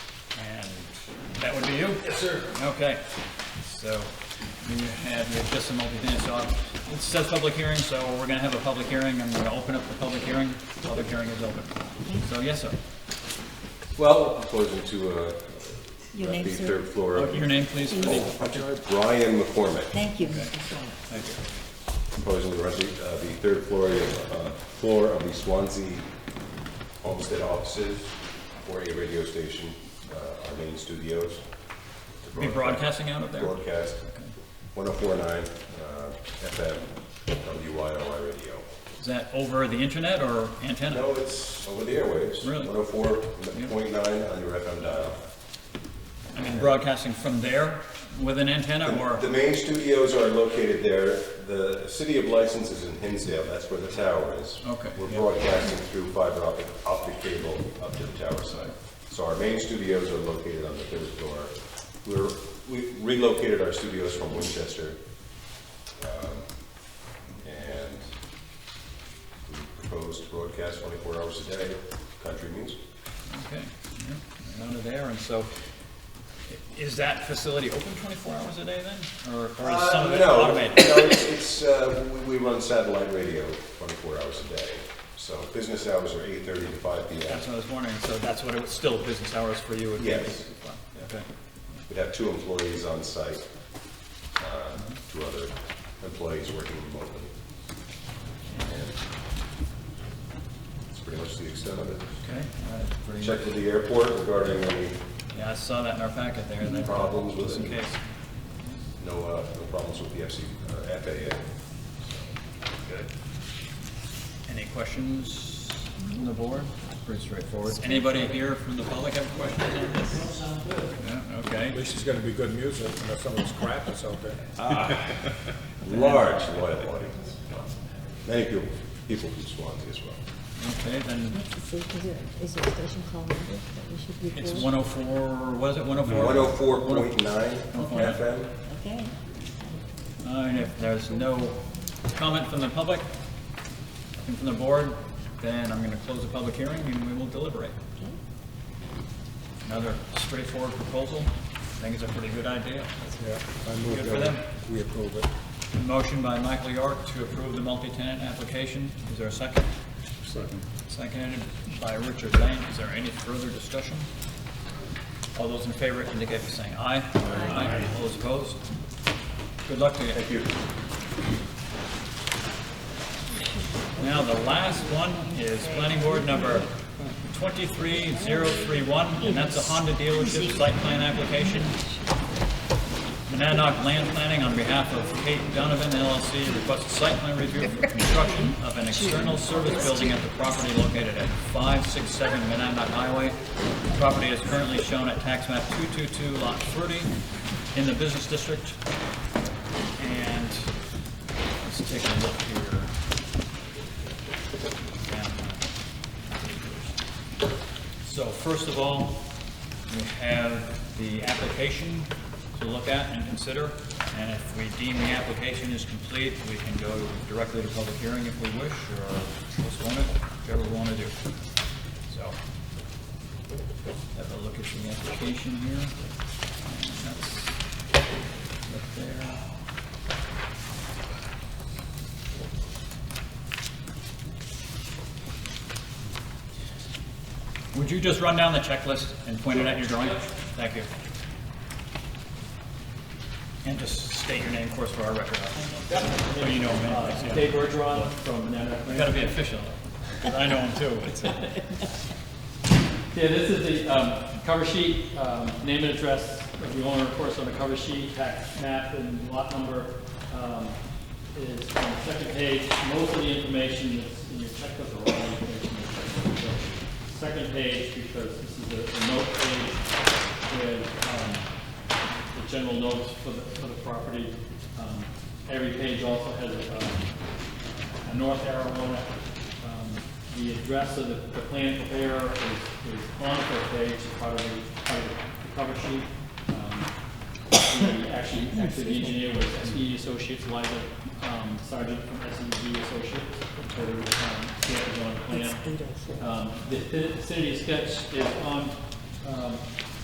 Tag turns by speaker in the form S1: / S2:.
S1: That would be you?
S2: Yes, sir.
S1: Okay, so you have your decimal multi so it says public hearing, so we're gonna have a public hearing, I'm gonna open up the public hearing, public hearing is open. So, yes, sir.
S2: Well, we're proposing to, uh,
S3: Your
S2: at
S3: name,
S2: the
S3: sir?
S2: third floor of
S1: Your name, please, for the,
S2: Brian McCormick,
S3: Thank you, Mr. Fuller.
S1: thank you.
S2: proposing the resi, uh, the third floor of, uh, floor of the Swansea Homestead offices for a radio station, uh, our main studios. to
S1: Be
S2: broadcast-
S1: broadcasting out of there?
S2: Broadcast, 1049 uh, FM, WYOI radio.
S1: Is that over the internet or antenna?
S2: No, it's over the airwaves.
S1: Really?
S2: 104.9 on your FM dial.
S1: I mean, broadcasting from there with an antenna or,
S2: The main studios are located there. The city of license is in Hinsdale, that's where the tower is.
S1: Okay,
S2: We're
S1: yeah.
S2: broadcasting through fiber optic, optic cable up to the tower site. So our main studios are located on the third floor. We're, we relocated our studios from Winchester. um, And we propose to broadcast twenty-four hours a day, country music.
S1: okay, yeah, out of there, and so, is that facility open twenty-four hours a day then? Or or is some of it
S2: Uh, no,
S1: automated?
S2: No, it's, it's, uh, we, we run satellite radio twenty-four hours a day, so business hours are eight-thirty to five P M.
S1: That's what I was wondering, so that's what it was, still business hours for you? would be?
S2: Yes.
S1: Okay.
S2: We'd have two employees on site, uh, two other employees working remotely. And That's pretty much the extent of it.
S1: Okay, all right, pretty
S2: Check with the airport regarding any,
S1: Yeah, I saw that in our packet there, that.
S2: Problems with
S1: Just in
S2: it.
S1: case.
S2: no, uh, no problems with the FC, uh, FAA. Good.
S1: Any questions from the board? Pretty straightforward. Anybody here from the public have questions on this? Yeah,
S4: At
S1: okay.
S4: least it's gonna be good music, and if some of this crap is out there.
S2: Large loyal audience. Many people, people from Swansea as well.
S1: Okay, then
S3: Let's see, is there, is there a station called number that we should report?
S1: it's one oh four, what is it, one oh four?
S2: 104.9 FM.
S3: Okay.
S1: All right, if there's no comment from the public, nothing from the board, then I'm gonna close the public hearing and we will deliberate. Another straightforward proposal. I think it's a pretty good idea.
S4: Yeah, I move
S1: Good for
S4: that
S1: them.
S4: we approve it.
S1: Motion by Michael York to approve the multi-tenant application. Is there a second? Second. Seconded by Richard Lane. Is there any further discussion? All those in favor indicate by saying aye. Aye. All those opposed? Good luck to you.
S2: Thank you.
S1: Now, the last one is planning board number 23031, and that's a Honda dealership site plan application. Monadnock Land Planning on behalf of Kate Donovan LLC requests a site plan review for construction of an external service building at the property located at 567 Monadnock Highway. The Property is currently shown at tax map 222 lot 30 in the business district. And let's take a look here. So first of all, we have the application to look at and consider, and if we deem the application is complete, we can go directly to public hearing if we wish, or postpone it, whichever we want to do. So, have a look at the application here. And That's up there. Would you just run down the checklist and point it at your drawing? Thank you. And just state your name, of course, for our record. So you know him.
S5: Uh, Dave Bergeron from Nana
S1: You
S5: Clan.
S1: gotta be official, 'cause I know him too. It's, uh,
S5: Yeah, this is the um, cover sheet, um, name and address of the owner, of course, on the cover sheet, tax map and lot number um, is on the second page. Most of the information that's in your checklist or all the information in your checklist. So, Second page, because this is a a note page with um, the general notes for the, for the property. Um, Every page also has um, a north arrow on it. Um, The address of the, the plan preparer is, is on the first page, it's part of the, part of the cover sheet. Um, the- Actually, actually the engineer was SE Associates, Liza um, Sergeant from SEG Associates, who, um, scanned it on the plan.
S3: It's eight oh four.
S5: Um, The the vicinity sketch is on um,